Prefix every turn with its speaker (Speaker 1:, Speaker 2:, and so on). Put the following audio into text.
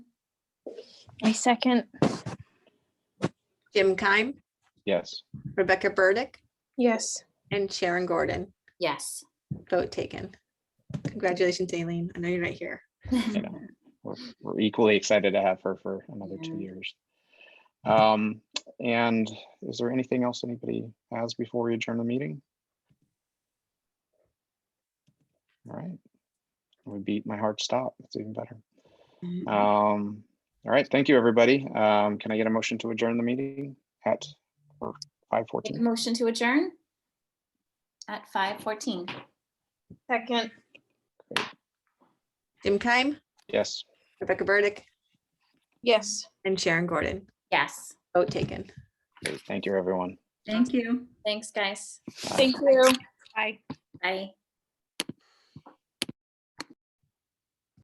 Speaker 1: I second.
Speaker 2: Jim Keim,
Speaker 3: Yes.
Speaker 2: Rebecca Burdick,
Speaker 1: Yes.
Speaker 2: and Sharon Gordon.
Speaker 4: Yes.
Speaker 2: Vote taken. Congratulations, Aileen. I know you're right here.
Speaker 3: We're, we're equally excited to have her for another two
Speaker 4: Yeah.
Speaker 3: years. Um, and is there anything else anybody has before we adjourn the meeting? All right. We beat my heart stop. It's even better. Um, all right. Thank you, everybody. Um, can I get a motion to adjourn the meeting at five
Speaker 4: Make a
Speaker 3: fourteen?
Speaker 4: Motion to adjourn at five fourteen.
Speaker 1: Second.
Speaker 2: Jim Keim,
Speaker 3: Yes.
Speaker 2: Rebecca Burdick,
Speaker 1: Yes.
Speaker 2: and Sharon Gordon.
Speaker 4: Yes.
Speaker 2: Vote taken.
Speaker 3: Great. Thank you, everyone.
Speaker 4: Thank you. Thanks, guys.
Speaker 1: Thank you. Bye.
Speaker 4: Bye.